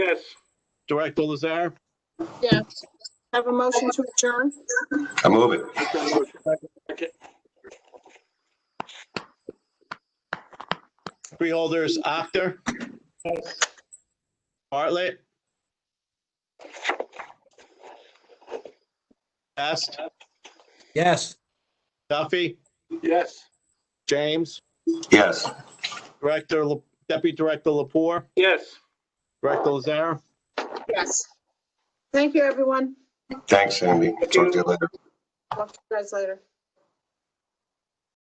Yes. Director Lazar, Yes. Have a motion to adjourn? I move it. freeholders, actor. Bartlett. Best, Yes. Duffy, Yes. James, Yes. Director, La- Deputy Director Lapore, Yes. Director Lazar. Yes. Thank you, everyone. Thanks, Sandy. Talk to you later. Talk to you guys later.